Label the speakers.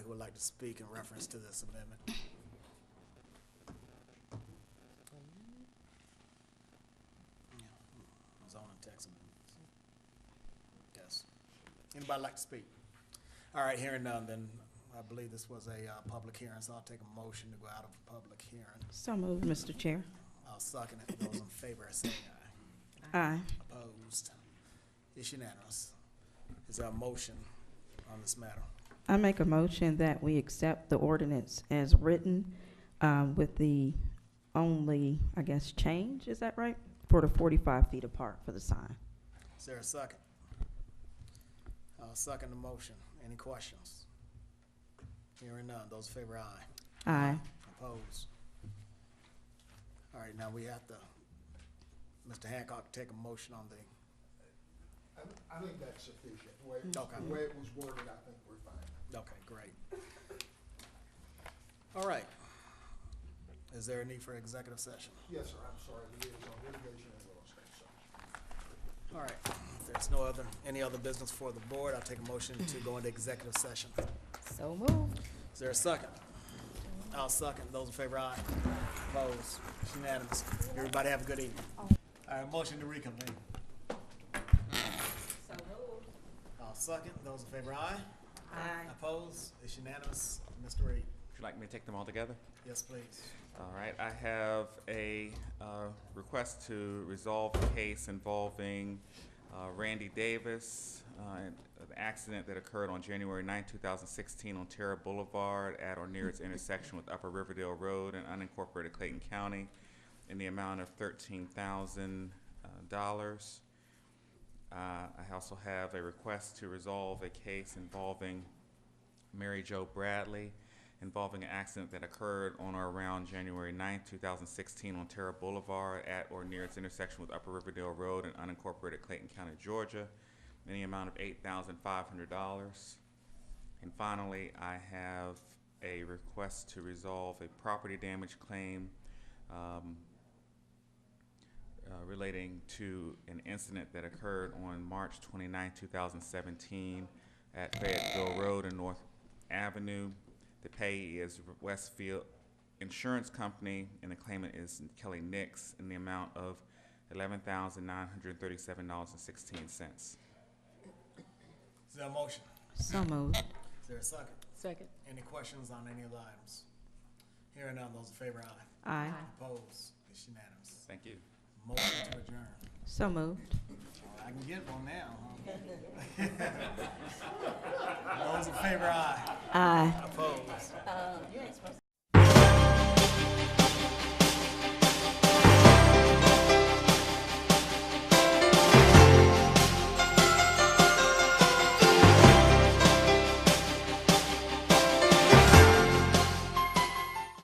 Speaker 1: would like to speak in reference to this amendment. Yeah, Zoning text amendment. Yes. Anybody like to speak? All right, hearing none, then I believe this was a, uh, public hearing, so I'll take a motion to go out of public hearing.
Speaker 2: So moved, Mr. Chair.
Speaker 1: I'll second it. Those in favor, say aye.
Speaker 2: Aye.
Speaker 1: Opposed? It's unanimous. Is there a motion on this matter?
Speaker 2: I make a motion that we accept the ordinance as written um, with the only, I guess, change, is that right? For the 45 feet apart for the sign.
Speaker 1: Is there a second? I'll second the motion. Any questions? Hearing none. Those in favor, aye.
Speaker 2: Aye.
Speaker 1: Opposed? All right, now we have to, Mr. Hancock, take a motion on the,
Speaker 3: I, I think that's sufficient, the way, it-
Speaker 1: Okay.
Speaker 3: the way it was worded, I think we're fine.
Speaker 1: okay, great. All right. Is there a need for executive session?
Speaker 3: Yes, sir, I'm sorry, the liaison litigation and real estate, so.
Speaker 1: All right, if there's no other, any other business for the board, I'll take a motion to go into executive session.
Speaker 2: So moved.
Speaker 1: Is there a second? I'll second. Those in favor, aye. Opposed, It's unanimous. Everybody have a good evening. All right, motion to reconvene. So I'll second. Those in favor, aye.
Speaker 2: Aye.
Speaker 1: Opposed, it's unanimous. Mr. Reed,
Speaker 4: Would you like me to take them all together?
Speaker 1: yes, please.
Speaker 4: All right, I have a uh, request to resolve a case involving uh, Randy Davis, uh, and an accident that occurred on January 9, 2016 on Terra Boulevard at or near its intersection with Upper Riverdale Road in unincorporated Clayton County in the amount of $13,000. Uh, I also have a request to resolve a case involving Mary Jo Bradley involving an accident that occurred on or around January 9, 2016 on Terra Boulevard at or near its intersection with Upper Riverdale Road in unincorporated Clayton County, Georgia, in the amount of $8,500. And finally, I have a request to resolve a property damage claim um, uh, relating to an incident that occurred on March 29, 2017 at Fayetteville Road and North Avenue. The payee is Westfield Insurance Company, and the claimant is Kelly Nix in the amount of $11,937.16.
Speaker 1: Is there a motion?
Speaker 2: So moved.
Speaker 1: Is there a second?
Speaker 5: Second.
Speaker 1: Any questions on any of the items? Hearing none, those in favor, aye.
Speaker 2: Aye.
Speaker 1: Opposed, it's unanimous.
Speaker 4: Thank you.
Speaker 1: Motion to adjourn.
Speaker 2: So moved.
Speaker 1: I can get one now. huh? Those in favor, aye.
Speaker 2: Aye.
Speaker 1: Opposed?